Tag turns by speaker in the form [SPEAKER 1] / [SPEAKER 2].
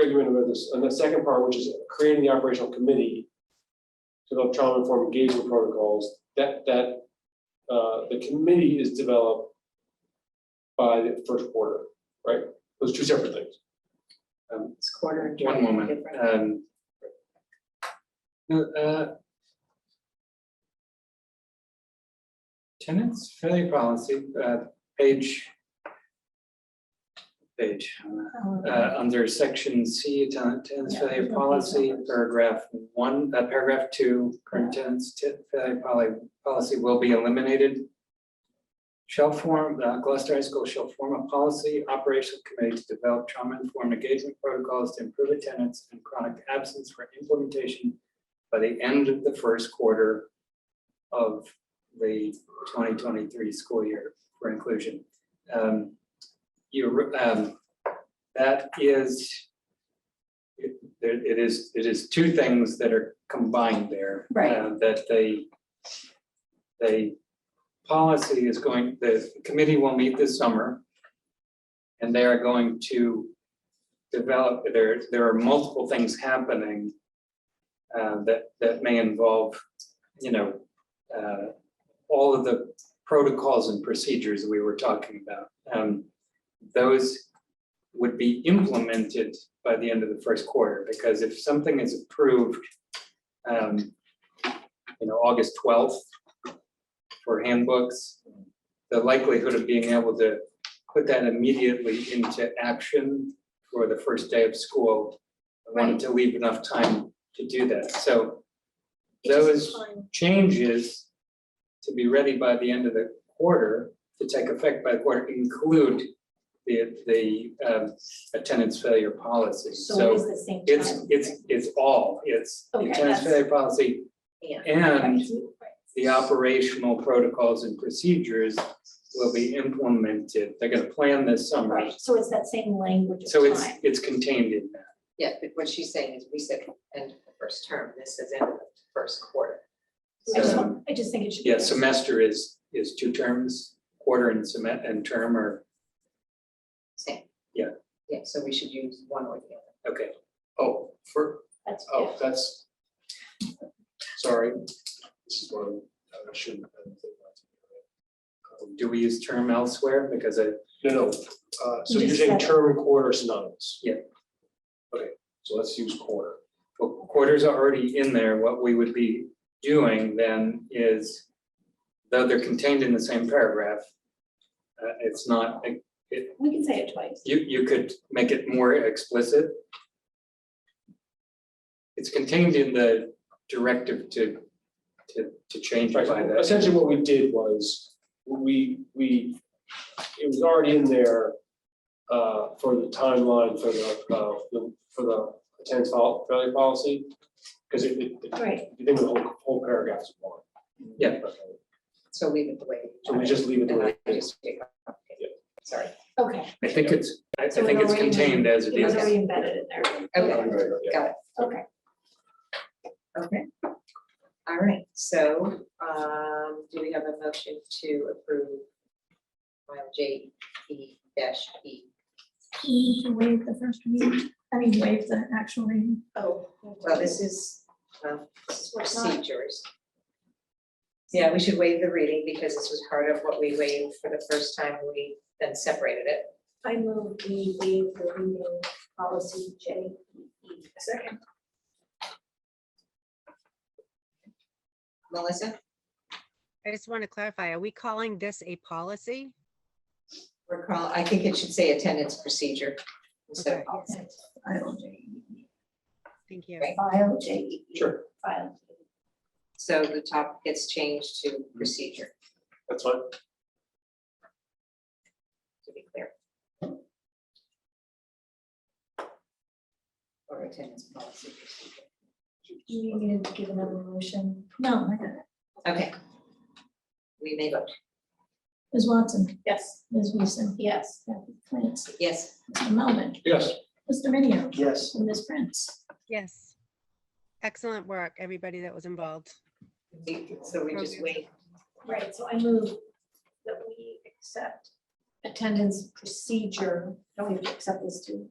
[SPEAKER 1] ignorant about this, and the second part, which is creating the operational committee to develop trauma-informed engagement protocols, that, that, uh, the committee is developed by the first quarter, right? Those two separate things.
[SPEAKER 2] Um,
[SPEAKER 3] It's quarter and.
[SPEAKER 2] One moment,
[SPEAKER 3] different.
[SPEAKER 2] um. no, uh, Tenants failure policy, uh, page. Page, uh,
[SPEAKER 3] Oh,
[SPEAKER 2] uh, under section C, tenant, tenants
[SPEAKER 3] Yeah,
[SPEAKER 2] failure
[SPEAKER 3] okay.
[SPEAKER 2] policy, paragraph one, uh, paragraph two, current tenants te- failure poly, policy will be eliminated. Shall form, uh, Gloucester High School shall form a policy operational committee to develop trauma-informed engagement protocols to improve attendance and chronic absence for implementation by the end of the first quarter of the twenty twenty-three school year for inclusion. Um, you, um, that is, it, there, it is, it is two things that are combined there.
[SPEAKER 3] Right.
[SPEAKER 2] uh, That they, they, policy is going, the committee will meet this summer. And they are going to develop, there, there are multiple things happening uh, that, that may involve, you know, uh, all of the protocols and procedures we were talking about. Um, Those would be implemented by the end of the first quarter, because if something is approved, um, you know, August twelfth for handbooks, the likelihood of being able to put that immediately into action for the first day of school, I wanted to leave enough time to do that, so those changes to be ready by the end of the quarter, to take effect by the quarter, include the, the um, attendance failure policy.
[SPEAKER 3] So it is
[SPEAKER 2] So
[SPEAKER 3] the same time.
[SPEAKER 2] it's, it's, it's all, it's the
[SPEAKER 3] Okay,
[SPEAKER 2] attendance
[SPEAKER 3] that's-
[SPEAKER 2] failure policy
[SPEAKER 3] Yeah.
[SPEAKER 2] and
[SPEAKER 3] Right, right.
[SPEAKER 2] the operational protocols and procedures will be implemented. They're gonna plan this summer.
[SPEAKER 3] Right, so it's that same language of time.
[SPEAKER 2] So it's, it's contained in that.
[SPEAKER 4] Yeah, but what she's saying is we said end of the first term, this is end of the first quarter.
[SPEAKER 3] I just,
[SPEAKER 2] so-
[SPEAKER 3] want- I just think it should. be
[SPEAKER 2] Yeah,
[SPEAKER 3] there.
[SPEAKER 2] semester is, is two terms, quarter and semet, and term are,
[SPEAKER 4] Same.
[SPEAKER 2] Yeah.
[SPEAKER 4] Yeah, so we should use one or the other.
[SPEAKER 2] okay.
[SPEAKER 1] Oh, for,
[SPEAKER 3] That's, yeah.
[SPEAKER 1] oh, that's, sorry, this is one, I shouldn't. have done that. Um,
[SPEAKER 2] Do we use term elsewhere? Because I,
[SPEAKER 1] No, no, uh, so
[SPEAKER 3] You
[SPEAKER 1] you're
[SPEAKER 3] just
[SPEAKER 1] saying
[SPEAKER 3] said it.
[SPEAKER 1] term and quarter are synonymous?
[SPEAKER 2] Yeah.
[SPEAKER 1] Okay, so let's use quarter.
[SPEAKER 2] well, quarters are already in there. What we would be doing then is, though they're contained in the same paragraph, uh, it's not,
[SPEAKER 3] we can say it twice.
[SPEAKER 2] you, you could make it more explicit. It's contained in the directive to, to, to change by
[SPEAKER 1] Right, so
[SPEAKER 2] that.
[SPEAKER 1] Essentially, what we did was, we, we, it was already in there uh, for the timeline for the, uh, the- for the attendance fol- failure policy, because it, it- it-
[SPEAKER 3] Right,
[SPEAKER 1] you think the whole, whole paragraph is one.
[SPEAKER 2] Yeah.
[SPEAKER 1] Okay,
[SPEAKER 4] So leave it the way.
[SPEAKER 1] So we just leave it the
[SPEAKER 4] And
[SPEAKER 1] way
[SPEAKER 4] I
[SPEAKER 1] it is.
[SPEAKER 4] just pick up.
[SPEAKER 1] Yeah.
[SPEAKER 4] Sorry.
[SPEAKER 3] okay.
[SPEAKER 2] I think it's, I I
[SPEAKER 3] So
[SPEAKER 2] think
[SPEAKER 3] we're
[SPEAKER 2] it's
[SPEAKER 3] already-
[SPEAKER 2] contained as it
[SPEAKER 3] It was
[SPEAKER 2] is.
[SPEAKER 3] already embedded in there.
[SPEAKER 4] Okay,
[SPEAKER 1] Yeah.
[SPEAKER 4] got it.
[SPEAKER 3] Okay,
[SPEAKER 4] Okay. All right, so um, do we have a motion to approve file J E dash E?
[SPEAKER 5] We need to waive the first reading, I mean, waive the actual reading.
[SPEAKER 4] Oh, well, this is um, this is
[SPEAKER 3] What's not?
[SPEAKER 4] procedures. Yeah, we should waive the reading because this was part of what we waived for the first time we then separated it.
[SPEAKER 3] I move we waive the reading policy J E. Second.
[SPEAKER 4] Melissa,
[SPEAKER 6] I just want to clarify, are we calling this a policy?
[SPEAKER 4] recall, I think it should say attendance procedure. So,
[SPEAKER 6] Okay.
[SPEAKER 3] File J E.
[SPEAKER 6] Thank you.
[SPEAKER 4] Right.
[SPEAKER 3] File J E.
[SPEAKER 1] Sure,
[SPEAKER 3] File.
[SPEAKER 4] so the top gets changed to procedure,
[SPEAKER 1] that's fine.
[SPEAKER 4] to be clear. Or attendance policy procedure.
[SPEAKER 3] Do you need to give another motion?
[SPEAKER 5] No, I got it.
[SPEAKER 4] Okay. We may vote.
[SPEAKER 5] Ms. Watson,
[SPEAKER 3] Yes.
[SPEAKER 5] Ms. Weason,
[SPEAKER 3] Yes.
[SPEAKER 5] Kathy Clancy,
[SPEAKER 4] Yes,
[SPEAKER 5] Mr. Melvin,
[SPEAKER 1] Yes.
[SPEAKER 5] Mr. Minio,
[SPEAKER 1] Yes.
[SPEAKER 5] and Ms. Prince.
[SPEAKER 6] Yes. Excellent work, everybody that was involved.
[SPEAKER 4] we- so we just wait.
[SPEAKER 3] Right, so I move that we accept attendance procedure, don't we have to accept this too?